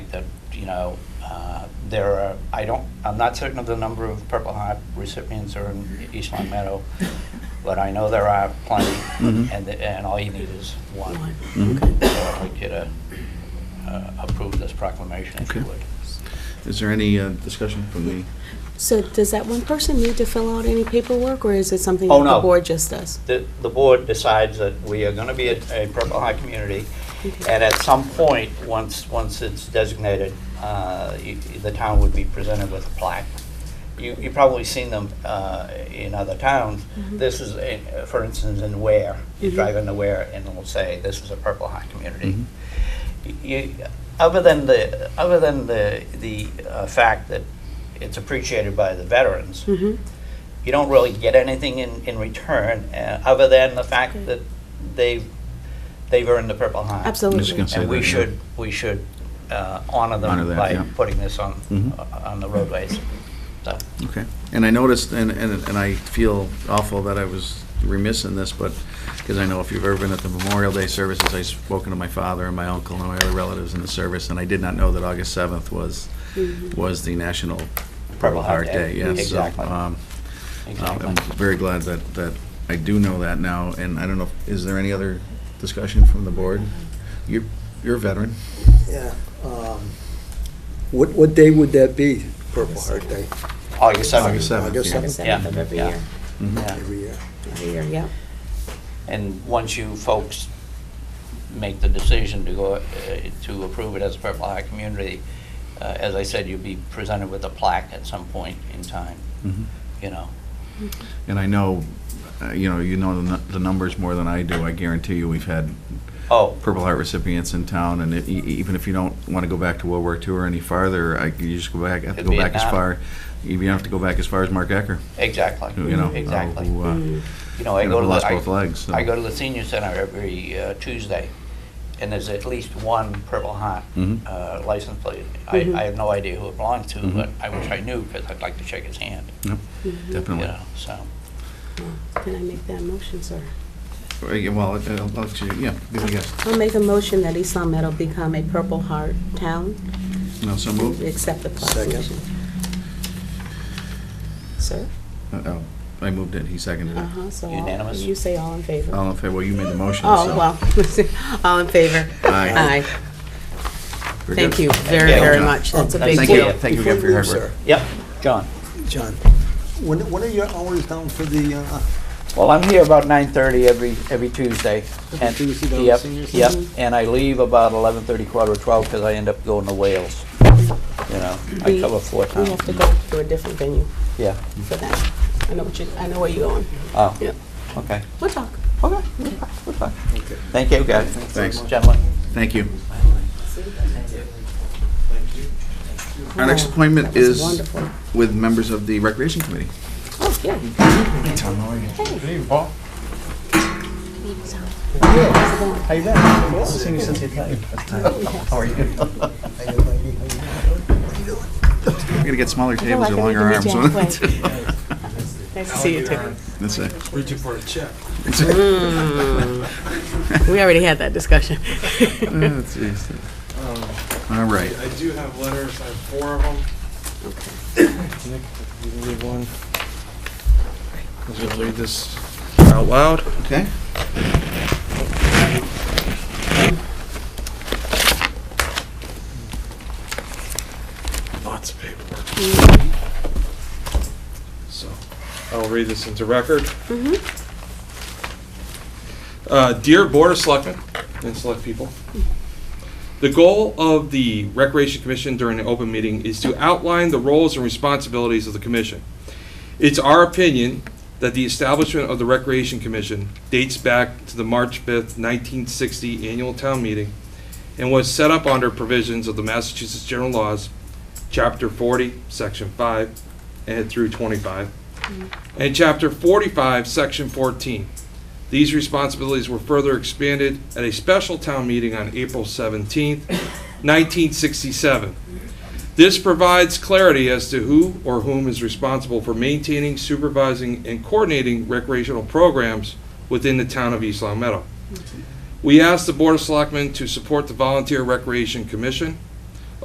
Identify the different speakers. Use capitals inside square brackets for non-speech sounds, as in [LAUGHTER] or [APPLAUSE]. Speaker 1: that, you know, uh, there are, I don't, I'm not certain of the number of Purple Heart recipients are in East Long Meadow, but I know there are plenty,
Speaker 2: Mhm.
Speaker 1: and, the- and all you need is one.
Speaker 2: Mhm.
Speaker 1: So I'd like you to uh, approve this proclamation if you
Speaker 2: Okay.
Speaker 1: would.
Speaker 2: Is there any uh, discussion from the,
Speaker 3: So does that one person need to fill out any paperwork, or is it something
Speaker 1: Oh,
Speaker 3: that the
Speaker 1: no.
Speaker 3: board just does?
Speaker 1: The, the board decides that we are gonna be a, a Purple Heart community,
Speaker 3: Okay.
Speaker 1: And at some point, once, once it's designated, uh, y- the town would be presented with a plaque. You, you've probably seen them uh, in other towns.
Speaker 3: Mhm.
Speaker 1: This is, in- for instance, in Ware, you
Speaker 3: Mhm.
Speaker 1: drive into Ware and it'll say, this is a Purple Heart community.
Speaker 2: Mhm.
Speaker 1: Y- You, other than the, other than the, the uh, fact that it's appreciated by the veterans,
Speaker 3: Mhm.
Speaker 1: you don't really get anything in, in return, uh, other than the fact
Speaker 3: Okay.
Speaker 1: that they've, they've earned the Purple Heart.
Speaker 2: I'm just
Speaker 3: Absolutely.
Speaker 2: gonna say
Speaker 1: And we
Speaker 2: that, yeah.
Speaker 1: should, we should uh, honor
Speaker 2: Honor
Speaker 1: them
Speaker 2: that,
Speaker 1: by
Speaker 2: yeah.
Speaker 1: putting this on,
Speaker 2: Mhm.
Speaker 1: uh, on the roadways. So,
Speaker 2: Okay. And I noticed, and, and and I feel awful that I was remiss in this, but, because I know if you've ever been at the Memorial Day services, I've spoken to my father and my uncle and my other relatives in the service, and I did not know that August 7th was,
Speaker 3: Mhm.
Speaker 2: was the National
Speaker 1: Purple
Speaker 2: Purple
Speaker 1: Heart
Speaker 2: Heart
Speaker 1: Day.
Speaker 2: Day. Yes. So,
Speaker 1: Exactly.
Speaker 2: um, um,
Speaker 1: exactly.
Speaker 2: I'm very glad that, that I do know that now, and I don't know, is there any other discussion from the board? You're, you're a veteran.
Speaker 4: Yeah. um, What, what day would that be, Purple Heart Day,
Speaker 1: August 7th.
Speaker 2: August 7th.
Speaker 4: August
Speaker 2: yeah.
Speaker 4: seventh?
Speaker 1: Yeah,
Speaker 5: Seventh of every
Speaker 1: yeah.
Speaker 5: year,
Speaker 2: Mhm.
Speaker 1: Yeah.
Speaker 4: every year?
Speaker 5: every year, yeah.
Speaker 3: Yeah.
Speaker 1: And once you folks make the decision to go, uh, to approve it as a Purple Heart community, uh, as I said, you'll be presented with a plaque at some point in time,
Speaker 2: Mhm.
Speaker 1: you know.
Speaker 2: And I know, uh, you know, you know the nu- the numbers more than I do. I guarantee you, we've had
Speaker 1: Oh,
Speaker 2: Purple Heart recipients in town, and it- e- e- even if you don't want to go back to World War II or any farther, I, you just go back, have to
Speaker 1: To
Speaker 2: go back as
Speaker 1: Vietnam.
Speaker 2: far, you don't have to go back as far as Mark Ecker,
Speaker 1: exactly,
Speaker 2: who, you know. uh,
Speaker 1: Mm-hmm, exactly.
Speaker 2: Who,
Speaker 3: Mm-hmm.
Speaker 2: uh, you
Speaker 1: You know, I
Speaker 2: know,
Speaker 1: go
Speaker 2: who
Speaker 1: to
Speaker 2: lost
Speaker 1: the,
Speaker 2: both
Speaker 1: I-
Speaker 2: legs. so.
Speaker 1: I go to the senior center every uh, Tuesday, and there's at least one Purple Heart
Speaker 2: Mhm.
Speaker 1: uh, license plate. I,
Speaker 3: Mhm.
Speaker 1: I have no idea who it belongs to,
Speaker 2: Mhm.
Speaker 1: but I wish I knew because I'd like to shake his hand.
Speaker 2: Yep,
Speaker 1: You
Speaker 2: Definitely.
Speaker 1: know, so
Speaker 3: Can I make that motion, sir?
Speaker 2: Uh, yeah, Well, I'll- I'll let you, yeah, give me a guess.
Speaker 3: I'll make a motion that East Long Meadow become a Purple Heart town.
Speaker 2: No, so move.
Speaker 3: Accept the
Speaker 4: Second.
Speaker 3: proclamation. Sir?
Speaker 2: Oh, I moved it, he seconded it.
Speaker 3: Uh-huh, so. all-
Speaker 1: Unanimous?
Speaker 3: You say all in favor.
Speaker 2: All in favor, well, you made the Oh, motion, so.
Speaker 3: Oh, well, [LAUGHS] all in favor.
Speaker 2: Aye.
Speaker 3: Aye.
Speaker 2: we're
Speaker 3: Thank
Speaker 2: good.
Speaker 3: you very,
Speaker 1: you.
Speaker 3: very much. That's a
Speaker 1: Thank
Speaker 3: big
Speaker 2: Thank you,
Speaker 3: deal.
Speaker 2: thank you again for your hard work.
Speaker 1: yep, John.
Speaker 4: John, when, when are your hours down for the, uh,
Speaker 1: Well, I'm here about nine thirty every every Tuesday.
Speaker 4: Every Tuesday down at
Speaker 1: yep,
Speaker 4: senior
Speaker 1: yep,
Speaker 4: center?
Speaker 1: and I leave about eleven thirty, quarter to twelve because I end up going to Wales. You know, I
Speaker 3: We-
Speaker 1: cover four
Speaker 3: We
Speaker 1: towns.
Speaker 3: have to go to a different venue
Speaker 1: Yeah.
Speaker 3: for that. I know what you, I know where you're going.
Speaker 1: Oh.
Speaker 3: Yep.
Speaker 1: Okay.
Speaker 3: We'll talk.
Speaker 1: Okay. Good luck. Thank you, guys.
Speaker 2: Thanks.
Speaker 1: gentlemen.
Speaker 2: Thank you. Our next appointment
Speaker 3: That
Speaker 2: is
Speaker 3: was wonderful.
Speaker 2: with members of the Recreation Committee.
Speaker 3: Oh, yeah.
Speaker 2: Tom, how are you?
Speaker 6: How
Speaker 4: uh,
Speaker 6: you been? I haven't seen you since the attack. How are you?
Speaker 1: [LAUGHS]
Speaker 2: We're gonna get smaller tables
Speaker 3: I
Speaker 2: or
Speaker 3: can
Speaker 2: longer
Speaker 3: make
Speaker 2: arms.
Speaker 3: it
Speaker 2: That's
Speaker 3: halfway.
Speaker 2: [LAUGHS]
Speaker 3: Nice to see you, Terry.
Speaker 2: it.
Speaker 4: reaching for a check?
Speaker 2: That's it.
Speaker 3: Mm.
Speaker 2: [LAUGHS]
Speaker 3: We already had that discussion.
Speaker 2: Oh,
Speaker 3: [LAUGHS]
Speaker 2: jeez. All right.
Speaker 7: I do have letters, I have four of them.
Speaker 4: Nick, you can leave one.
Speaker 7: I'm just gonna read this out loud.
Speaker 2: Okay.
Speaker 7: Lots of paperwork. So, I'll read this into record. Uh, Dear Board of Selectmen and Select People, the goal of the Recreation Commission during an open meeting is to outline the roles and responsibilities of the commission. It's our opinion that the establishment of the Recreation Commission dates back to the March 5th, 1960 annual town meeting and was set up under provisions of the Massachusetts General Laws, Chapter 40, Section 5, and through 25, and Chapter 45, Section 14. These responsibilities were further expanded at a special town meeting on April 17, 1967. This provides clarity as to who or whom is responsible for maintaining, supervising, and coordinating recreational programs within the town of East Long Meadow. We ask the Board of Selectmen to support the Volunteer Recreation Commission